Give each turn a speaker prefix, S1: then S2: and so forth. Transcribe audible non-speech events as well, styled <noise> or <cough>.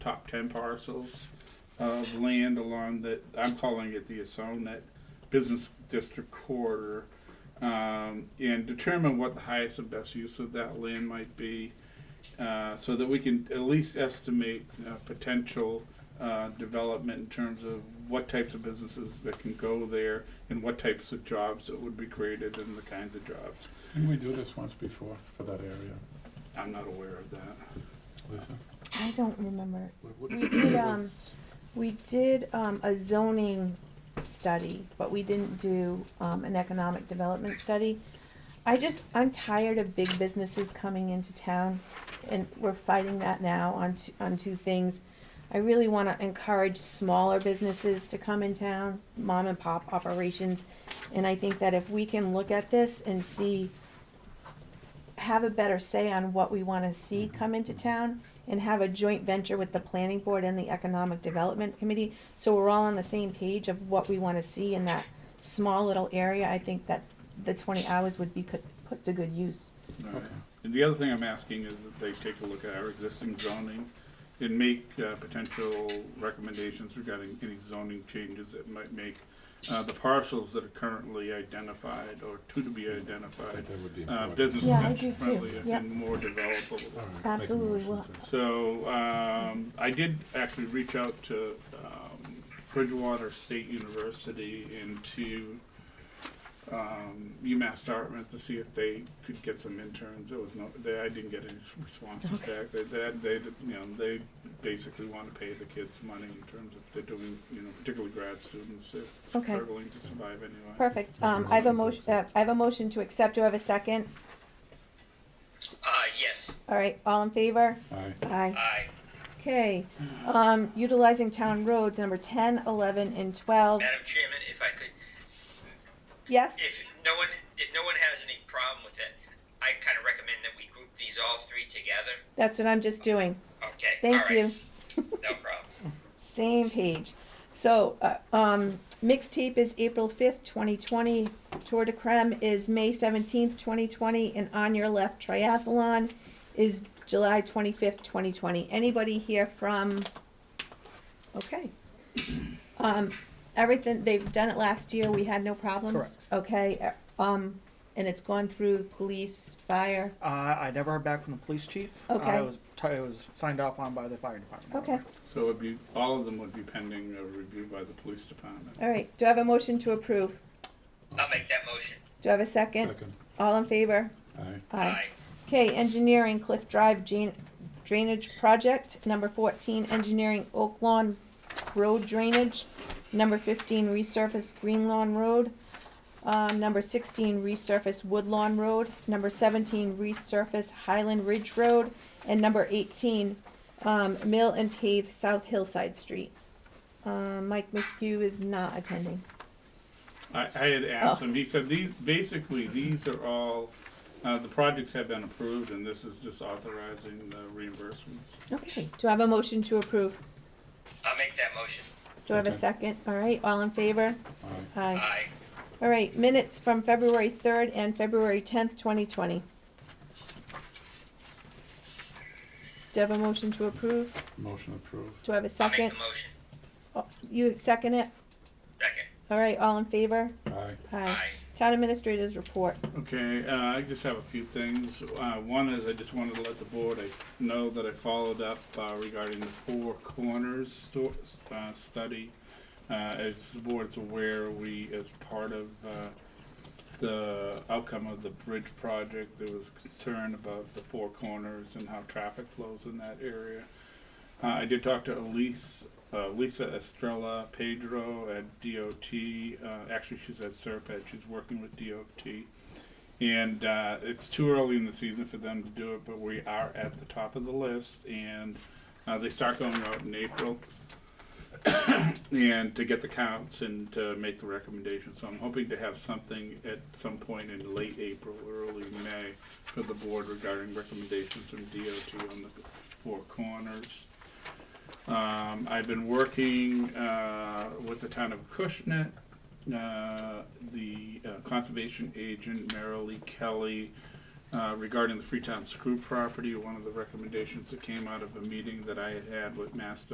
S1: ten parcels of land along that, I'm calling it the Asonet Business District corridor. Um, and determine what the highest and best use of that land might be, uh, so that we can at least estimate, uh, potential, uh, development in terms of what types of businesses that can go there and what types of jobs that would be created and the kinds of jobs.
S2: Didn't we do this once before for that area,
S1: I'm not aware of that.
S2: Lisa?
S3: I don't remember.
S2: What- what-
S3: We did, um,
S2: was-
S3: We did, um, a zoning study, but we didn't do, um, an economic development study. I just, I'm tired of big businesses coming into town, and we're fighting that now on two, on two things. I really wanna encourage smaller businesses to come in town, mom and pop operations, and I think that if we can look at this and see, have a better say on what we wanna see come into town, and have a joint venture with the planning board and the economic development committee, so we're all on the same page of what we wanna see in that small little area, I think that the twenty hours would be could, put to good use.
S1: All right. And the other thing I'm asking is that they take a look at our existing zoning and make uh, potential recommendations regarding any zoning changes that might make uh, the parcels that are currently identified or to be
S2: I
S1: identified,
S2: think that would be
S1: uh,
S2: important.
S1: business
S3: Yeah, I do too.
S1: friendly
S3: Yep.
S1: and more developable.
S2: All right, make a
S3: Absolutely,
S2: motion
S3: well-
S2: to-
S1: So, um, I did actually reach out to, um, Bridgewater State University and to, um, UMass Dartmouth to see if they could get some interns. There was no, they, I didn't get any responses back. They, they, they, you know, they basically want to pay the kids money in terms of they're doing, you know, particularly grad students, they're
S3: Okay.
S1: struggling to survive anyway.
S3: Perfect, um, I have a motion, uh, I have a motion to accept, do I have a second?
S4: Uh, yes,
S3: All right, all in favor?
S2: Aye,
S3: Aye.
S4: I,
S3: Okay, um, utilizing town roads, number ten, eleven, and twelve,
S4: Madam Chairman, if I could,
S3: yes?
S4: if no one, if no one has any problem with it, I kind of recommend that we group these all three together.
S3: That's what I'm just doing,
S4: Okay. all
S3: thank
S4: right,
S3: you.
S4: No problem.
S3: Same page. So, uh, um, mixtape is April fifth, twenty twenty. Tour de Creme is May seventeenth, twenty twenty, and On Your Left Triathlon is July twenty-fifth, twenty twenty. Anybody here from? Okay. Um, everything, they've done it last year. We had no problems.
S5: Correct.
S3: Okay, uh, um, and it's gone through police, fire.
S5: Uh, I never heard back from the police chief.
S3: Okay.
S5: I was, t- I was signed off on by the fire department.
S3: Okay,
S1: So it'd be, all of them would be pending a review by the police department.
S3: all right. Do I have a motion to approve?
S4: I'll make that motion.
S3: Do I have a second?
S2: second,
S3: All in favor?
S2: aye,
S4: Aye.
S3: Okay, engineering Cliff Drive Drain- Drainage Project, number fourteen, engineering Oak Lawn Road Drainage, number fifteen, resurface Green Lawn Road, um, number sixteen, resurface Wood Lawn Road, number seventeen, resurface Highland Ridge Road, and number eighteen, um, mill and pave South Hillside Street. Um, Mike McHugh is not attending.
S1: I, I had asked
S3: Oh.
S1: him, he said, these, basically, these are all, uh, the projects have been approved, and this is just authorizing the reimbursements.
S3: Okay, do I have a motion to approve?
S4: I'll make that motion.
S3: Do I have a second? All right, all in favor?
S2: aye.
S3: Aye.
S4: I,
S3: All right, minutes from February third and February tenth, twenty twenty. Do I have a motion to approve?
S2: Motion approved,
S3: Do I have a
S4: I'll make
S3: second?
S4: the motion.
S3: Oh, You second it?
S4: Second.
S3: All right, all in favor?
S2: aye,
S3: Aye.
S4: Aye.
S3: Town administrators report.
S1: Okay, uh, I just have a few things. Uh, one is I just wanted to let the board I know that I followed up uh, regarding the Four Corners sto- uh, study. Uh, as the board's aware, we, as part of uh, the outcome of the bridge project, there was concern about the Four Corners and how traffic flows in that area. Uh, I did talk to Elise, uh, Lisa Estrella Pedro at DOT. Uh, actually, she's at Serpent. She's working with DOT. And uh, it's too early in the season for them to do it, but we are at the top of the list, and uh, they start going out in April. <coughs> and to get the counts and to make the recommendations, so I'm hoping to have something at some point in late April, early May, for the board regarding recommendations from DOT on the four corners. Um, I've been working uh, with the town of Cushnet, uh, the uh, conservation agent Marilee Kelly uh, regarding the Freetown Screw property. One of the recommendations that came out of a meeting that I had had with Master